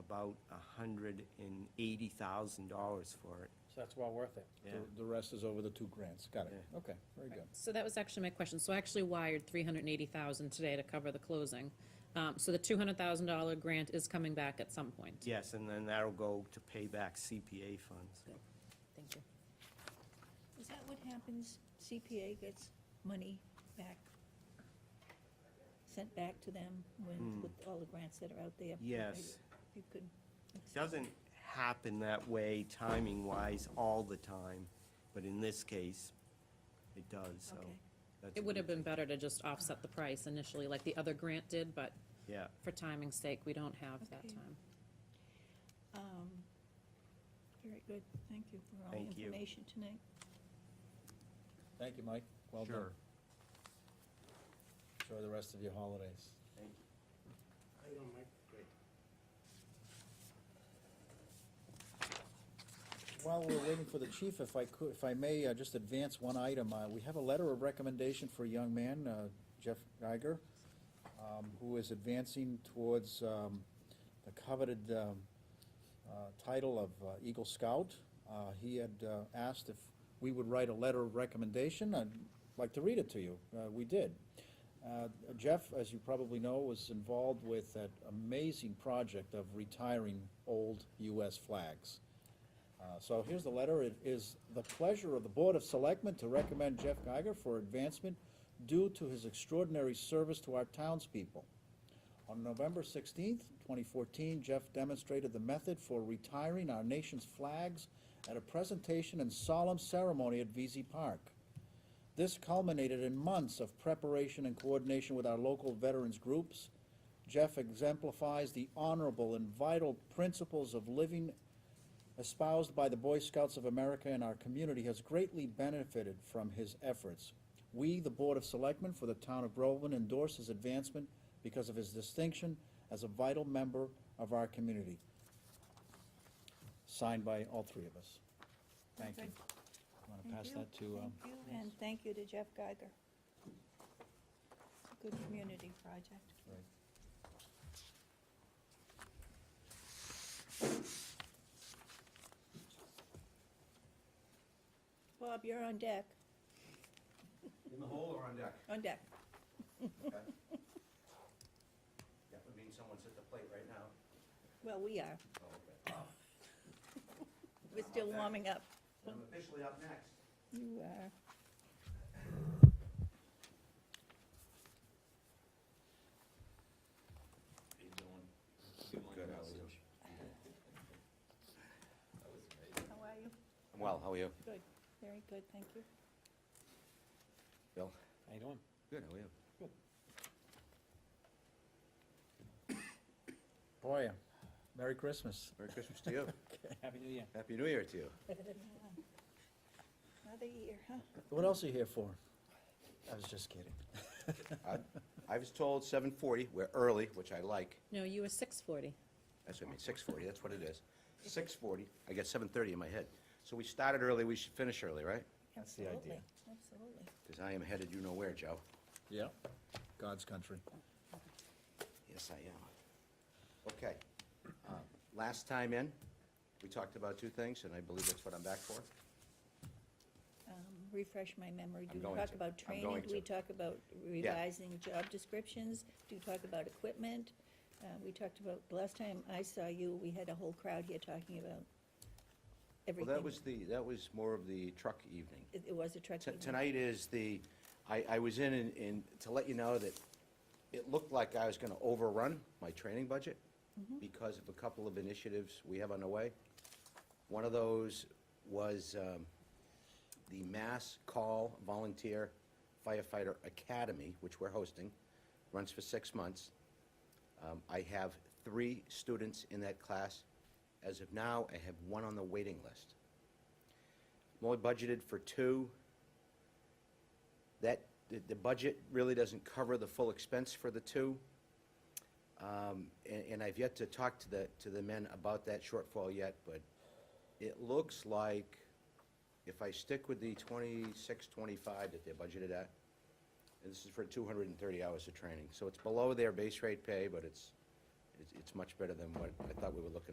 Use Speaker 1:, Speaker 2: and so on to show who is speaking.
Speaker 1: about hundred and eighty thousand dollars for it.
Speaker 2: So that's well worth it.
Speaker 1: Yeah,
Speaker 3: The- The rest is over the two grants, got it,
Speaker 1: Yeah.
Speaker 3: okay, very good.
Speaker 4: So that was actually my question. So I actually wired three hundred and eighty thousand today to cover the closing. Um, so the two hundred thousand dollar grant is coming back at some point.
Speaker 1: yes, and then that'll go to pay back CPA funds.
Speaker 4: Thank you.
Speaker 5: Is that what happens? CPA gets money back, sent back to them when, with all the grants that are out there?
Speaker 1: Hmm. Yes.
Speaker 5: If You could,
Speaker 1: Doesn't happen that way timing-wise all the time, but in this case, it does, so.
Speaker 5: Okay.
Speaker 1: that's a
Speaker 4: It would have
Speaker 1: good-
Speaker 4: been better to just offset the price initially like the other grant did, but
Speaker 1: Yeah,
Speaker 4: for timing's sake, we don't have that
Speaker 5: Okay.
Speaker 4: time.
Speaker 5: um, very good, thank you for all the
Speaker 1: Thank you.
Speaker 5: information tonight.
Speaker 3: Thank you, Mike, well done.
Speaker 1: sure.
Speaker 3: Enjoy the rest of your holidays. While we're waiting for the chief, if I could, if I may, uh, just advance one item. Uh, We have a letter of recommendation for a young man, uh, Jeff Geiger, um, who is advancing towards um, the coveted um, uh, title of uh, Eagle Scout. Uh, He had uh, asked if we would write a letter of recommendation. I'd like to read it to you. Uh, We did. Uh, Jeff, as you probably know, was involved with that amazing project of retiring old US flags. Uh, So here's the letter. It is the pleasure of the Board of Selectmen to recommend Jeff Geiger for advancement due to his extraordinary service to our townspeople. On November 16th, 2014, Jeff demonstrated the method for retiring our nation's flags at a presentation and solemn ceremony at VZ Park. This culminated in months of preparation and coordination with our local veterans groups. Jeff exemplifies the honorable and vital principles of living espoused by the Boy Scouts of America and our community has greatly benefited from his efforts. We, the Board of Selectmen for the Town of Groveland, endorse his advancement because of his distinction as a vital member of our community. Signed by all three of us. Thank you.
Speaker 5: Okay.
Speaker 3: Want to
Speaker 5: Thank
Speaker 3: pass
Speaker 5: you.
Speaker 3: that to, um,
Speaker 5: Thank you, and thank you to Jeff Geiger. It's a Good community project.
Speaker 3: right.
Speaker 5: Bob, you're on deck,
Speaker 6: In the hole or on deck?
Speaker 5: on deck.
Speaker 6: Okay. That would mean someone's at the plate right now.
Speaker 5: Well, we are,
Speaker 6: Oh, okay.
Speaker 5: we're still warming up.
Speaker 6: I'm officially up next.
Speaker 5: You uh, are.
Speaker 6: How you doing? Good, how are
Speaker 5: How are
Speaker 6: you?
Speaker 5: you?
Speaker 6: I'm well, how are you?
Speaker 5: Good, very good, thank you.
Speaker 6: Bill?
Speaker 2: How you doing?
Speaker 6: Good, how are you?
Speaker 3: Boy, Merry Christmas.
Speaker 6: Merry Christmas to you.
Speaker 2: Happy New Year.
Speaker 6: Happy New Year to you.
Speaker 5: Another year, huh?
Speaker 3: What else are you here for? I was just kidding.
Speaker 6: I- I was told seven forty, we're early, which I like.
Speaker 4: No, you were six forty.
Speaker 6: That's what I mean, six forty, that's what it is. Six forty, I got seven thirty in my head. So we started early, we should finish early, right?
Speaker 3: That's the idea.
Speaker 5: Absolutely, Absolutely.
Speaker 6: Because I am headed you know where, Joe.
Speaker 3: Yeah. God's country.
Speaker 6: Yes, I am. Okay. Uh, Last time in, we talked about two things, and I believe that's what I'm back for.
Speaker 5: Um, Refresh my memory.
Speaker 6: I'm
Speaker 5: Do we
Speaker 6: going
Speaker 5: talk
Speaker 6: to. I'm
Speaker 5: about training?
Speaker 6: going
Speaker 5: Do we
Speaker 6: to.
Speaker 5: talk about revising job descriptions? Do we talk about equipment? Uh, We talked about, the last time I saw you, we had a whole crowd here talking about
Speaker 6: Well,
Speaker 5: everything.
Speaker 6: that was the, that was more of the truck evening.
Speaker 5: It it was a truck.
Speaker 6: T-
Speaker 5: meeting.
Speaker 6: Tonight is the, I, I was in, and- and to let you know that it looked like I was gonna overrun my training budget because of a couple of initiatives we have underway. One of those was um, the Mass Call Volunteer Firefighter Academy, which we're hosting, runs for six months. Um, I have three students in that class. As of now, I have one on the waiting list. I'm only budgeted for two. That, the, the budget really doesn't cover the full expense for the two. Um, and, and I've yet to talk to the, to the men about that shortfall yet, but it looks like if I stick with the twenty-six, twenty-five that they're budgeted at, and this is for two hundred and thirty hours of training, so it's below their base rate pay, but it's, It's, it's much better than what I thought we were looking